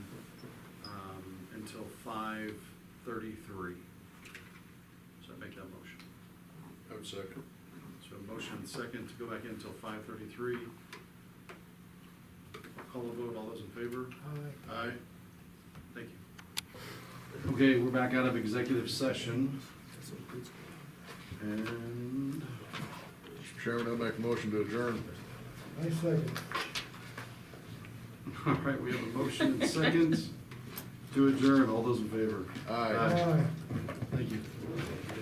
um, until five thirty-three. So I make that motion. I would second. So a motion and second to go back in until five thirty-three. Call a vote, all those in favor? Aye. Thank you. Okay, we're back out of executive session and Mr. Chairman, I make a motion to adjourn. I second. All right, we have a motion and seconds to adjourn. All those in favor? Aye. Aye. Thank you.